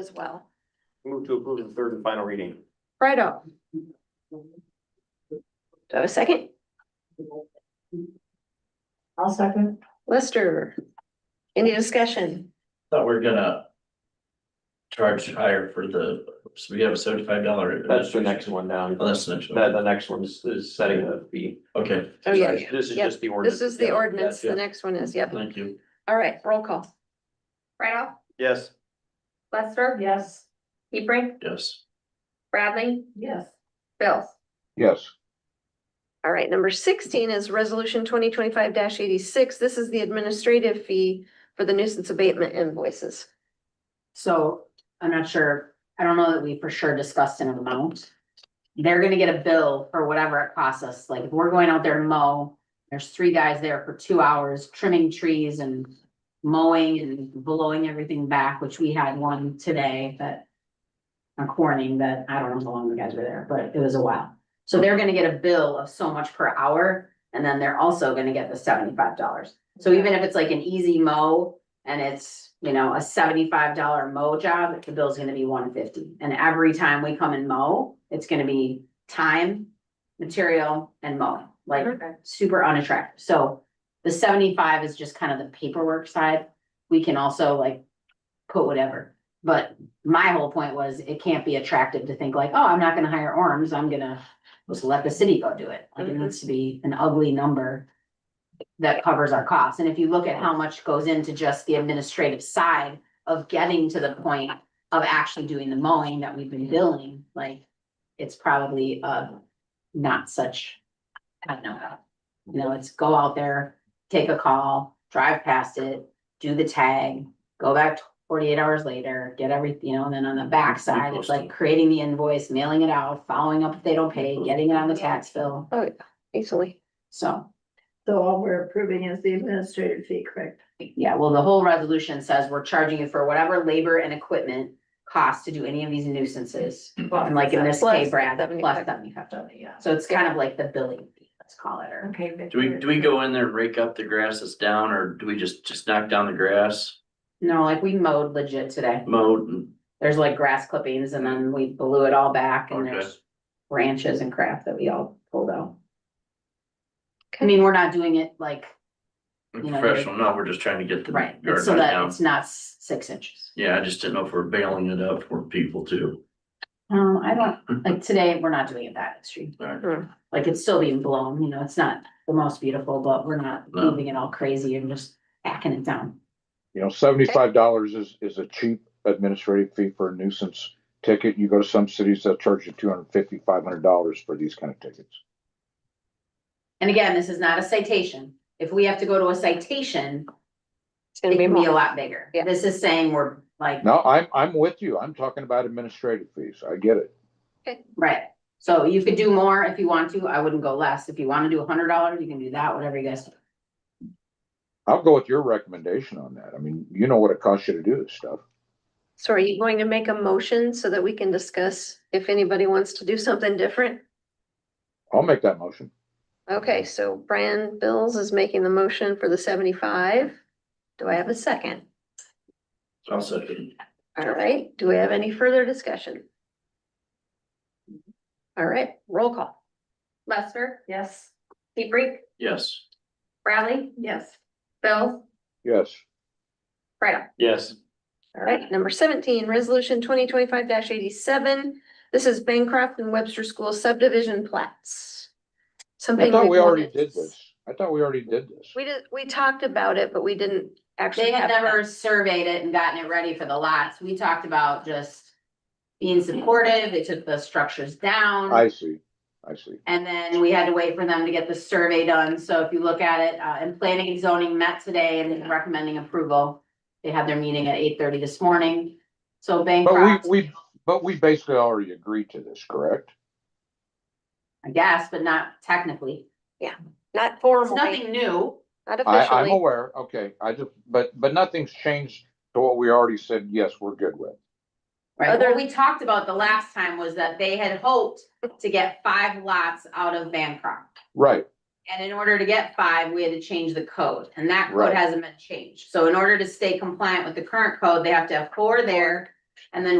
as well. Move to approve the third and final reading. Righto. Do I have a second? I'll second. Lester? Any discussion? Thought we we're gonna. Charge higher for the, so we have a seventy-five dollar. That's the next one down. Oh, that's the next That, one, the next one is, is setting the fee. okay, Oh, yeah. yeah. This is Yep. just the ordinance. This is the Yeah. ordinance. The Yeah. next one is, yep. thank you. All right, roll call. Right off, Yes, Lester? Yes. Hebrink, Yes, Bradley, Yes. Bills. yes, All right, number sixteen is resolution twenty twenty-five eighty-six. This is the administrative fee for the nuisance abatement invoices. So I'm not sure, I don't know that we for sure discussed an amount. They're gonna get a bill for whatever it costs us, like if we're going out there and mow, there's three guys there for two hours trimming trees and. Mowing and blowing everything back, which we had one today that. A corning that, I don't know how long the guys were there, but it was a while. So they're gonna get a bill of so much per hour, and then they're also gonna get the seventy-five dollars. So even if it's like an easy mow, and it's, you know, a seventy-five dollar mow job, the bill's gonna be one fifty. And every time we come and mow, it's gonna be time, material, and mowing, like Okay. super unattractive. So the seventy-five is just kind of the paperwork side. We can also like put whatever. But my whole point was it can't be attractive to think like, oh, I'm not gonna hire arms, I'm gonna just let the city go do it. Like it Mhm. needs to be an ugly number that covers our costs. And if you look at how much goes into just the administrative side of getting to the point of actually doing the mowing that we've been billing, like it's probably uh not such, I don't know. You know, it's go out there, take a call, drive past it, do the tag, go back forty-eight hours later, get everything, you know, and then on the backside, it's like creating the invoice, mailing it out, following up if they don't pay, getting it on the tax bill, Easily. so. So all we're approving is the administrative fee, correct? Yeah, well, the whole resolution says we're charging you for whatever labor and equipment costs to do any of these nuisances. And like in this Plus case, Brad, plus 75. seventy-five dollars. Yeah. So it's kind of like the billing fee, let's call it, or Okay. do we, do we go in there, rake up the grass that's down, or do we just, just knock down the grass? no, like we mowed legit today. Mowed and, There's like grass clippings and then we blew it all back and Okay. there's branches and crap that we all pulled out. I mean, we're not doing it like, and You know, professional, no, we're just trying to get the right, garden so that down. it's not s- six inches. Yeah, I just didn't know if we're bailing it up for people too. Um, I don't, like today, we're not doing it that extreme. Alright, like it's still being blown, you know, it's not the most beautiful, but we're not No. moving it all crazy and just hacking it down. you know, seventy-five dollars is, is a cheap administrative fee for a nuisance ticket. You go to some cities that charge you two hundred fifty, five hundred dollars for these kind of tickets. And again, this is not a citation. If we have to go to a citation, It's it gonna be can be a more. lot bigger. Yeah. This is saying we're like, No, I'm, I'm with you. I'm talking about administrative fees. I get it. right. So you could do more if you want to. I wouldn't go less. If you want to do a hundred dollars, you can do that, whatever you guys. do. I'll go with your recommendation on that. I mean, you know what it costs you to do this stuff. So are you going to make a motion so that we can discuss if anybody wants to do something different? I'll make that motion. Okay, so Brian Bills is making the motion for the seventy-five. Do I have a second? I'll second. All right, do we have any further discussion? All right, roll call. Lester, Yes. Hebrink, Yes, Bradley, Yes. Bills, Yes, right off. yes, All right, number seventeen, resolution twenty twenty-five eighty-seven. This is Bancroft and Webster School subdivision plats. I Something. thought we've we already wanted- did this. I thought we already did this. We did, we talked about it, but we didn't actually. They had have never surveyed it and gotten it ready for the lots. We talked about just being supportive. They took the structures down. I see, I see. And then we had to wait for them to get the survey done, so if you look at it, uh, and planning and zoning met today and is recommending approval. They had their meeting at eight thirty this morning, so But Bancroft, we, we, but we basically already agreed to this, correct? I guess, but not technically. Not It's formally, nothing new, not I, I'm officially. aware, okay, I just, but, but nothing's changed to what we already said, yes, we're good with. right? Other- What we talked about the last time was that they had hoped to get five lots out of Bancroft. Right, And in order to get five, we had to change the code, and that code Right. hasn't been changed. So in order to stay compliant with the current code, they have to have four there And then